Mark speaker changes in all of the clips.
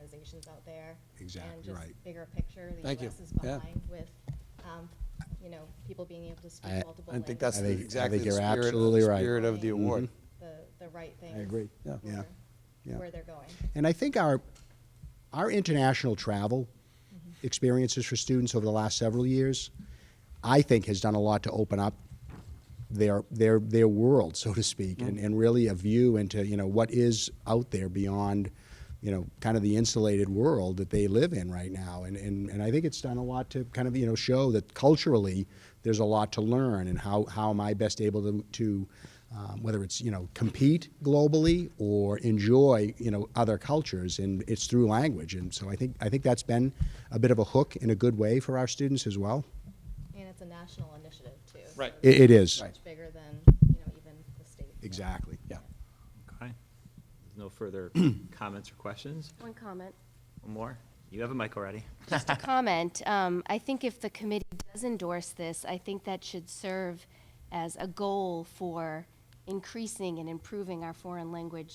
Speaker 1: organizations out there.
Speaker 2: Exactly,
Speaker 1: And just
Speaker 2: right.
Speaker 1: bigger picture, the
Speaker 3: Thank you.
Speaker 1: US is
Speaker 3: Yeah.
Speaker 1: behind with, um, you know, people being able to speak
Speaker 4: I-
Speaker 1: multiple
Speaker 3: I
Speaker 1: languages.
Speaker 3: think that's
Speaker 4: I
Speaker 3: the-
Speaker 4: think- I
Speaker 3: exactly
Speaker 4: think
Speaker 3: the
Speaker 4: you're
Speaker 3: spirit,
Speaker 4: absolutely
Speaker 3: the
Speaker 4: right.
Speaker 3: spirit of the
Speaker 1: Mhm.
Speaker 3: award.
Speaker 1: The, the right thing.
Speaker 4: agree. Yeah.
Speaker 3: Yeah.
Speaker 4: Yeah.
Speaker 1: Where they're going.
Speaker 4: And I think our our international travel experiences for students over the last several years, I think, has done a lot to open up their their their world, so to speak, and, and really a view into you know what is out there beyond you know kind of the insulated world that they live in right now and, and and I think it's done a lot to kind of you know show that culturally there's a lot to learn and how how am I best able to, to um, whether it's you know compete globally or enjoy you know other cultures and it's through language and so I think I think that's been a bit of a hook in a good way for our students as well
Speaker 1: And it's a national initiative too. so
Speaker 3: Right.
Speaker 1: it's
Speaker 4: it, it is
Speaker 3: Right.
Speaker 1: Much bigger than, you know, even the state.
Speaker 4: exactly yeah
Speaker 5: Okay. No further comments or questions?
Speaker 6: One comment.
Speaker 5: One more? You have a mic already.
Speaker 6: Just a comment. Um, I think if the committee does endorse this, I think that should serve as a goal for increasing and improving our foreign language,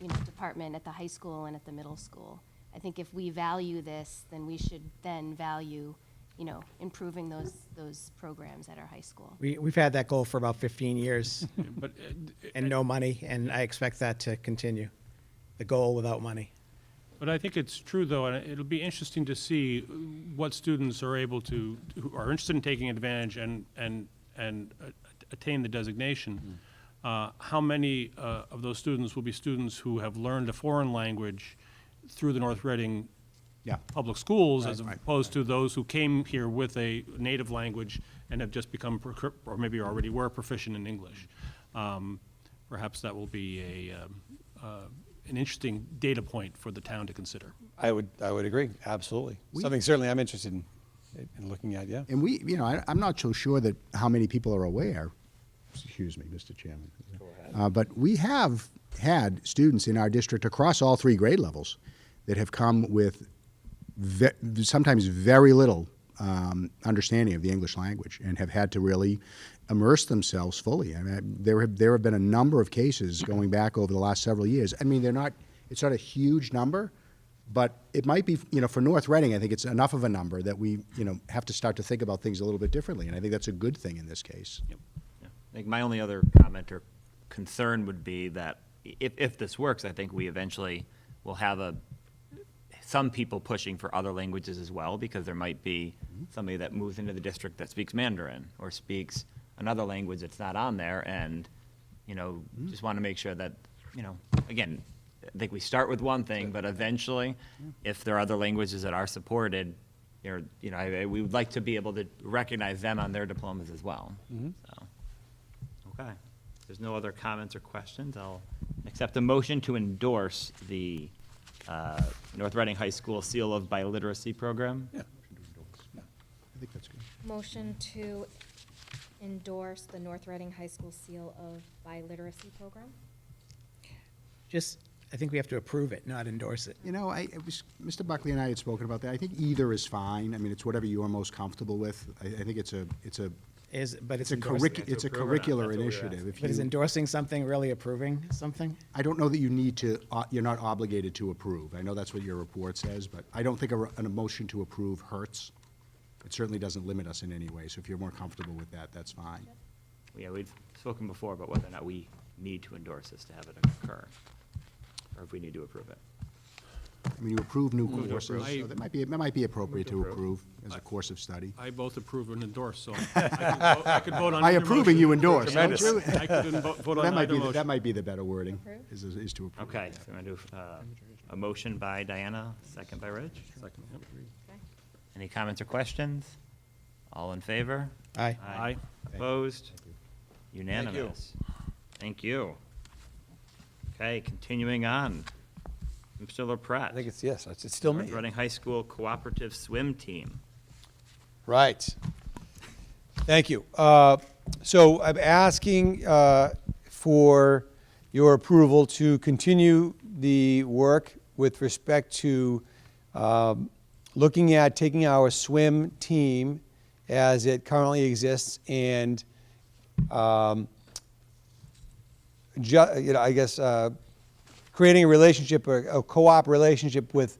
Speaker 6: you know, department at the high school and at the middle school. I think if we value this, then we should then value, you know, improving those, those programs at our high school.
Speaker 7: We, we've had that goal for about 15 years
Speaker 8: But uh, d-
Speaker 7: and no money, and I expect that to continue. The goal without money.
Speaker 8: But I think it's true, though, and it'll be interesting to see what students are able to, who are interested in taking advantage and, and, and uh, attain the designation. Uh, How many uh, of those students will be students who have learned a foreign language through the North Reading
Speaker 4: Yeah.
Speaker 8: public schools as
Speaker 4: Right.
Speaker 8: opposed to those who came here with a native language and have just become, proc- or maybe already were proficient in English. Um, Perhaps that will be a, um, uh, an interesting data point for the town to consider.
Speaker 3: I would, I would agree, absolutely. Something certainly I'm interested in, in looking at, yeah.
Speaker 4: And we, you know, I, I'm not so sure that how many people are aware. Excuse me, Mr. Chairman. Uh, but we have had students in our district across all three grade levels that have come with ve- sometimes very little um, understanding of the English language and have had to really immerse themselves fully. I mean, there have there have been a number of cases going back over the last several years. I mean, they're not. It's not a huge number, but it might be, you know, for North Reading, I think it's enough of a number that we, you know, have to start to think about things a little bit differently. And I think that's a good thing in this case.
Speaker 5: Yeah. I think my only other comment or concern would be that i- if, if this works, I think we eventually will have a, some people pushing for other languages as well, because there might be somebody that moves into the district that speaks Mandarin or speaks another language that's not on there, and, you know, just want to make sure that, you know, again, I think we start with one thing, but eventually, if there are other languages that are supported, you're, you know, I, I- we would like to be able to recognize them on their diplomas as well, so. Okay. If there's no other comments or questions, I'll accept a motion to endorse the uh, North Reading High School Seal of Biliteracy Program.
Speaker 4: I think that's good.
Speaker 1: Motion to endorse the North Reading High School Seal of Biliteracy Program?
Speaker 7: Just, I think we have to approve it, not endorse it.
Speaker 4: You know, I, it was, Mr. Buckley and I had spoken about that. I think either is fine. I mean, it's whatever you are most comfortable with. I, I think it's a, it's a,
Speaker 7: Is, but
Speaker 4: it's
Speaker 7: it's
Speaker 4: a
Speaker 7: endorsing.
Speaker 4: curric, it's a curricular initiative. If
Speaker 7: But is
Speaker 4: you-
Speaker 7: endorsing something really approving something?
Speaker 4: I don't know that you need to, uh, you're not obligated to approve. I know that's what your report says, but I don't think a, re- an emotion to approve hurts. It certainly doesn't limit us in any way, so if you're more comfortable with that, that's fine.
Speaker 5: Yeah, we've spoken before about whether or not we need to endorse this to have it occur, or if we need to approve it.
Speaker 4: I mean, you approve new
Speaker 8: to
Speaker 4: courses,
Speaker 8: approve.
Speaker 4: so that might be, that might be appropriate to approve as a course of study.
Speaker 8: I both approve and endorse, so I could vo- I could vote on
Speaker 4: By
Speaker 8: either
Speaker 4: approving, you
Speaker 8: motion.
Speaker 4: endorse, don't you?
Speaker 8: I could en- vo- vote
Speaker 4: That
Speaker 8: on
Speaker 4: might
Speaker 8: either
Speaker 4: be, the- that
Speaker 8: motion.
Speaker 4: might be the better wording,
Speaker 1: Approve?
Speaker 4: is, is to approve.
Speaker 5: Okay, so I'm going to do uh, a motion by Diana, second by Rich.
Speaker 8: Second, yep.
Speaker 1: Okay.
Speaker 5: Any comments or questions? All in favor?
Speaker 7: Aye.
Speaker 5: Aye.
Speaker 8: Aye.
Speaker 5: Opposed? Unanimous. Thank you. Okay, continuing on. Mr. LaPret.
Speaker 3: I think it's, yes, it's it's still me.
Speaker 5: Running High School Cooperative Swim Team.
Speaker 3: Right. Thank you. Uh, So I'm asking uh, for your approval to continue the work with respect to um, looking at taking our swim team as it currently exists and um, ju- you know, I guess, uh, creating a relationship, a a co-op relationship with